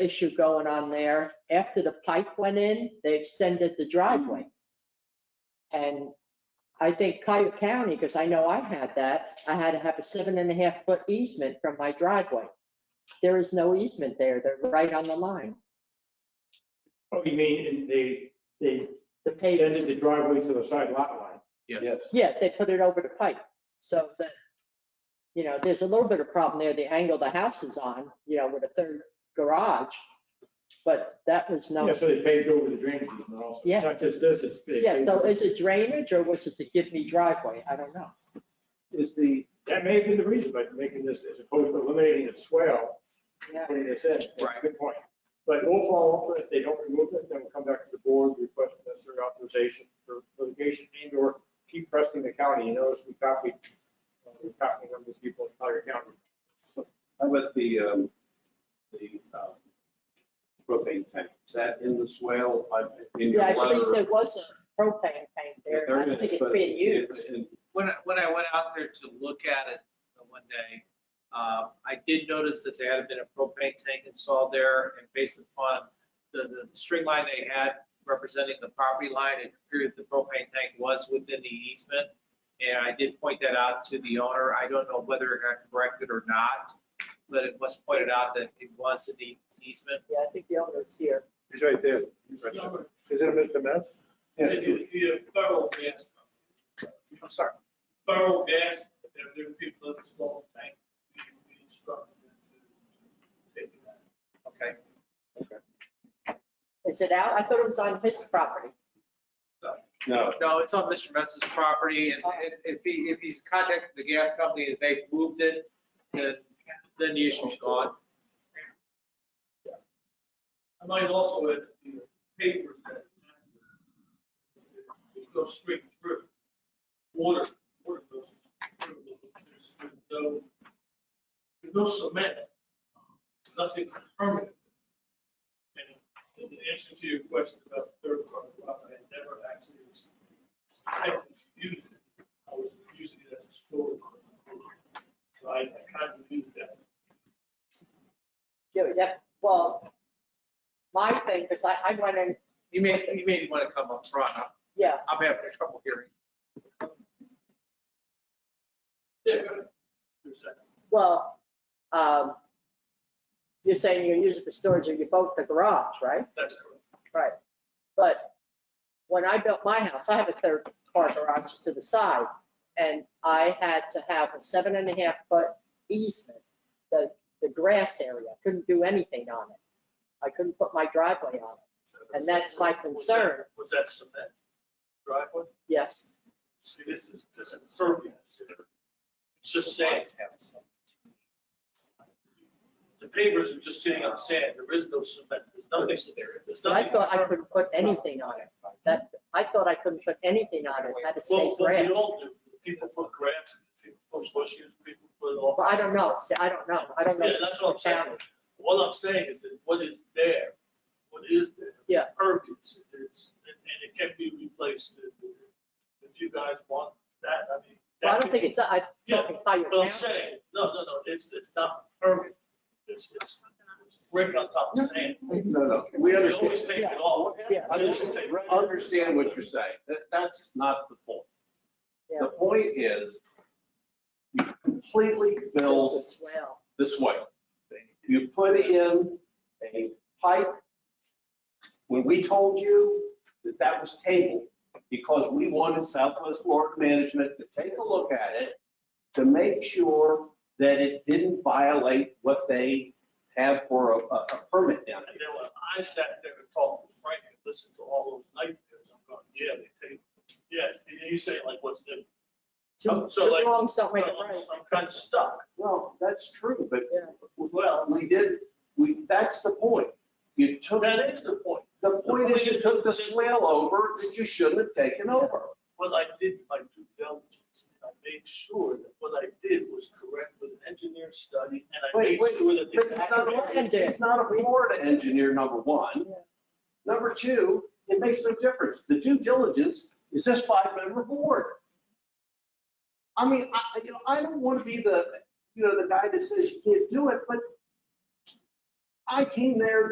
issue going on there. After the pipe went in, they extended the driveway. And I think Cuyahoga County, because I know I had that, I had to have a seven and a half foot easement from my driveway. There is no easement there. They're right on the line. Oh, you mean, and they, they The pavement, extended the driveway to the side lot line? Yes. yeah, they put it over the pipe. So that, you know, there's a little bit of problem there, the angle the house is on, you know, with a third garage. But that was no. Yeah, so they paved over the drainage easement also. Yes. Not just this, it's. they Yeah, paved so over- is it drainage or was it to give me driveway? I don't know. Is the, that may have been the reason, by making this, as opposed to eliminating the swale, Yeah. putting this in. Right. Good point. But we'll follow up, if they don't remove it, then we'll come back to the board, request necessary authorization for litigation, and or keep pressing the county, you notice we copied, uh, we copied a number of people in Collier County. How about the, um, the, um, propane tank? Is that in the swale, like, in your Yeah, I believe letter? there was a propane tank there. and I don't think it's being used. When, I- when I went out there to look at it the one day, uh, I did notice that there had been a propane tank installed there and based upon the, the string line they had representing the property line, it appeared the propane tank was within the easement. And I did point that out to the owner. I don't know whether it got corrected or not, but it was pointed out that it was in the easement. Yeah, I think the owner's here. He's right there. Is it Mr. Mess? If you, if you have thorough gas, I'm sorry. thorough gas, there there are people that install a tank, we we instruct them to take it uh, out. Okay. Is it out? I thought it was on his property. No. No, it's on Mr. Mess's property, and and if he, if he's contacted the gas company and they've moved it, then, then the issue's gone. I might also add the papers that go straight through. Water, water goes through. There's no, there's no cement, uh, nothing permanent. And in answer to your question about third party property, I never actually was, I was using it. I was using it as a storage. So I I kind of knew that. Yeah, yeah, well, my thing, because I, I went in, You may, you may want to come up front. I'm- yeah, I'm having trouble hearing. Yeah, go ahead. Your second. well, um, you're saying you use it for storage of your boat, the garage, right? That's correct. Right. But when I built my house, I have a third car garage to the side, and I had to have a seven and a half foot easement, the, the grass area, I couldn't do anything on it. I couldn't put my driveway on it, And that's my concern. Was that cement driveway? yes. See, this is, this is impervious here. It's just sand. The pavers are just sitting on sand. There is no cement. There's nothing. There's I nothing. thought I couldn't put anything on it, that, I thought I couldn't put anything on it, had to stay Well, what we grass. all do, people put grass, people put bushes, people put all. Well, I don't know, see, I don't know, I don't know. Yeah, that's what I'm saying. Challenge. What I'm saying is that what is there, what is there? Yeah. It's Pervious, it's, and and it can be replaced if- if you guys want that, I mean. Well, I don't that can think be- it's, I, Yeah, I, But I'm saying, no, no, no, it's, it's not pervious, it's, it's it's brick on top of sand. No, no, we We always understand. take it off. Yeah. I Understand I understand what you're saying. That, that's not the point. yeah, The point is, you completely it's fill a swell. the swale. You put in a pipe. When we told you that that was tabled, because we wanted Southwest Florida Management to take a look at it to make sure that it didn't violate what they have for a, a a permit down And then when I sat there and talked to Frank and listened to all those nightmares, I'm going, yeah, they take, yeah, and you say like, what's new? Two Um, so two like- wrongs don't make a I'm- right. I'm kind of stuck. there. Well, that's true, but, Yeah. well, we did, we, that's the point. You took, That is the point. the point is you took the swale over that you shouldn't have taken over. What I did, my due diligence, and I made sure that what I did was correct with an engineer study, and I Wait, made wait, sure that. But it's the not, accurate- it's not a Florida engineer, number one. Yeah. Number two, it makes no difference. The due diligence is this five-member board. I mean, I, I- you know, I don't want to be the, you know, the guy that says you can't do it, but I came there